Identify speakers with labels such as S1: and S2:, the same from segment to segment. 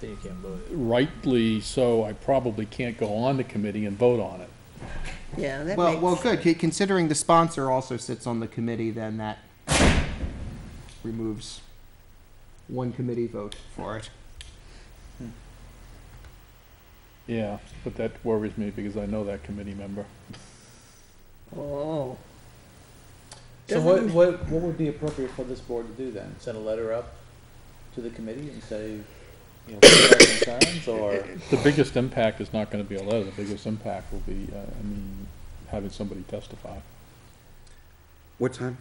S1: then you can't vote it.
S2: rightly so, I probably can't go on the committee and vote on it.
S3: Yeah, that
S4: Well, well,
S3: makes,
S4: good, c- considering the sponsor also sits on the committee, then that removes one committee vote for it.
S2: Yeah, but that worries me because I know that committee member.
S3: oh.
S1: So what,
S3: Doesn't-
S1: what, what would be appropriate for this board to do then? Send a letter up to the committee and say, you know, what are our concerns or?
S2: The biggest impact is not gonna be a letter, the biggest impact will be, uh, I mean, having somebody testify.
S4: What time?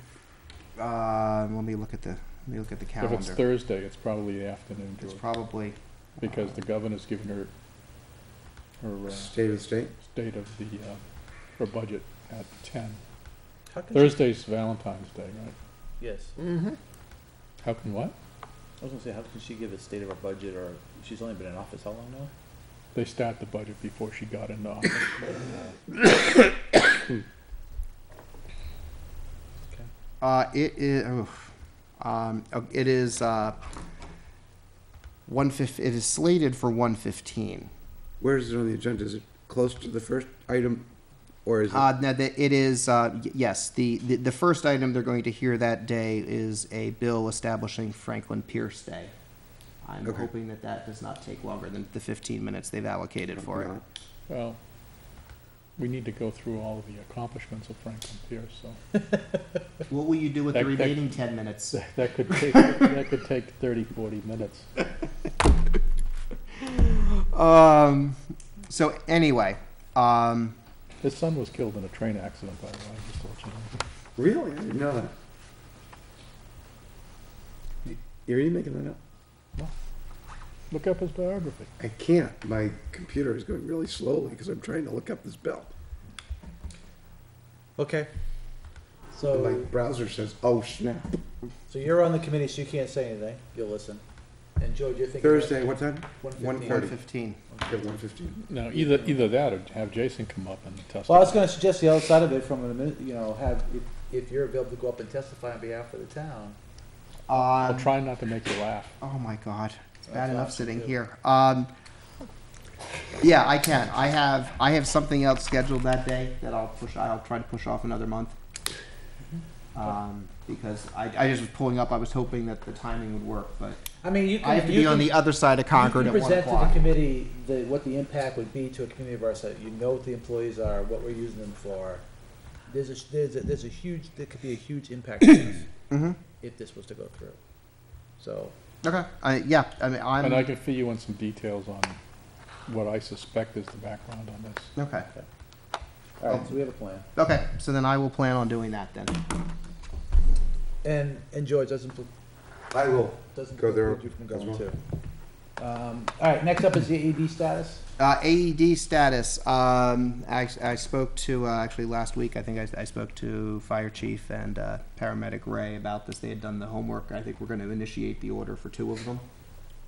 S4: Uh, let me look at the, let me look at the
S2: If it's
S4: calendar.
S2: Thursday, it's probably the afternoon,
S4: It's
S2: George,
S4: probably,
S2: because the governor's given her, her, uh,
S5: State of the state?
S2: state of the, uh, her budget at ten.
S1: How can you-
S2: Thursday's Valentine's Day, right?
S1: Yes,
S3: Mhm.
S2: How can what?
S1: I was gonna say, how can she give a state of our budget or, she's only been in office how long now?
S2: They start the budget before she got into office.
S4: uh, it is, oof. um, uh, it is, uh, one fif, it is slated for one fifteen.
S5: Where is it on the agenda? Is it close to the first item, or is it?
S4: Uh, no, that it is, uh, y- yes, the, the, the first item they're going to hear that day is a bill establishing Franklin Pierce Day. I'm
S5: Okay.
S4: hoping that that does not take longer than the fifteen minutes they've allocated for it.
S2: Well, we need to go through all of the accomplishments of Franklin Pierce, so
S4: What will you do with the
S2: That- that-
S4: remaining ten minutes?
S2: that- that could take, that could take thirty, forty minutes.
S4: Um, so anyway, um,
S2: His son was killed in a train accident, by the way, just to let you know.
S5: Really? I didn't know that. Y- Are you making that up?
S2: Look up his biography.
S5: I can't. My computer is going really slowly because I'm trying to look up this bill.
S1: Okay.
S5: And my
S1: So,
S5: browser says, oh snap.
S1: so you're on the committee, so you can't say anything, you'll listen. And George, you're thinking.
S5: Thursday, what time?
S1: One
S4: one
S1: fifteen.
S5: thirty.
S4: fifteen.
S5: At one fifteen.
S2: No, either, either that or have Jason come up and testify.
S1: Well, I was gonna suggest the other side of it from a minute, you know, have, if, if you're available to go up and testify on behalf of the town.
S2: I'll
S4: Um,
S2: try not to make you laugh.
S4: oh my god, it's
S1: That's
S4: bad enough
S1: awesome,
S4: sitting
S1: too.
S4: here. Um, yeah, I can. I have I have something else scheduled that day that I'll push. I'll try to push off another month.
S1: Mm-hmm.
S4: Um, because I, I just was pulling up. I was hoping that the timing would work, but
S1: I mean, you can.
S4: I have to
S1: you
S4: be on
S1: can-
S4: the other side of Concord
S1: you can
S4: at one
S1: present to the
S4: o'clock.
S1: committee the, what the impact would be to a community of our size. You know what the employees are, what we're using them for. There's a, there's a, there's a huge, there could be a huge impact to us
S4: Mhm.
S1: if this was to go through. So,
S4: Okay. I, yeah. I mean, I'm.
S2: And I can fill you in some details on what I suspect is the background on this.
S4: okay.
S1: all right, so we have a plan.
S4: Okay. So then I will plan on doing that then.
S1: And, and George doesn't, pl-
S5: I will.
S1: doesn't
S5: Go there
S1: preclude you from
S5: as
S1: going too. Um, all right, next up is the AED status.
S4: Uh, AED status. Um, I, I spoke to uh, actually last week. I think I, I spoke to fire chief and uh, paramedic Ray about this. They had done the homework. I think we're going to initiate the order for two of them.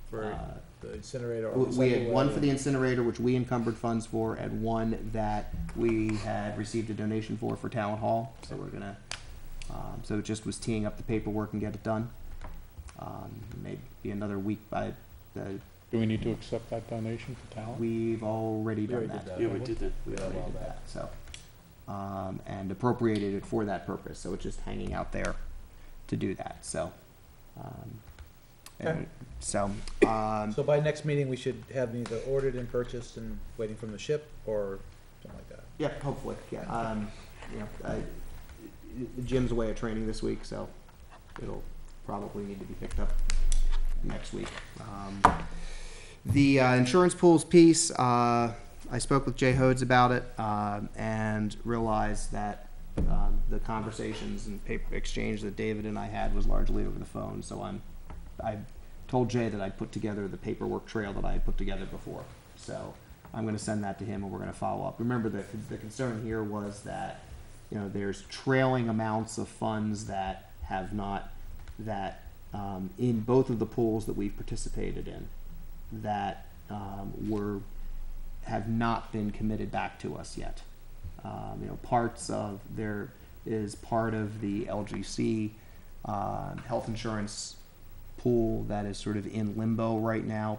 S1: For
S4: Uh,
S1: the incinerator. or
S4: we, we had
S1: recycle
S4: one for the
S1: area.
S4: incinerator, which we encumbered funds for, and one that we had received a donation for for town hall. So we're gonna. Um, so it just was teeing up the paperwork and get it done. Um, maybe another week by. The,
S2: Do we need to accept that donation for talent?
S4: we've already
S1: We
S4: done
S1: already
S4: that.
S1: did that.
S6: Yeah, we did that.
S4: we
S1: Yeah,
S4: already
S1: well,
S4: did
S1: that-
S4: that, so. Um, and appropriated it for that purpose, so it's just hanging out there to do that, so. um, and So, um,
S1: So by next meeting, we should have them either ordered and purchased and waiting from the ship or something like that.
S4: yeah, hopefully, yeah, um, you know, I, Jim's away at training this week, so it'll probably need to be picked up next week. Um, The uh, insurance pools piece, uh, I spoke with Jay Hodes about it um, and realized that um, the conversations and paper exchange that David and I had was largely over the phone. So I'm, I told Jay that I'd put together the paperwork trail that I had put together before. So I'm going to send that to him and we're going to follow up. Remember that the concern here was that, you know, there's trailing amounts of funds that have not, that um, in both of the pools that we've participated in that um, were have not been committed back to us yet. Um, you know, parts of there is part of the LGC uh, health insurance pool that is sort of in limbo right now.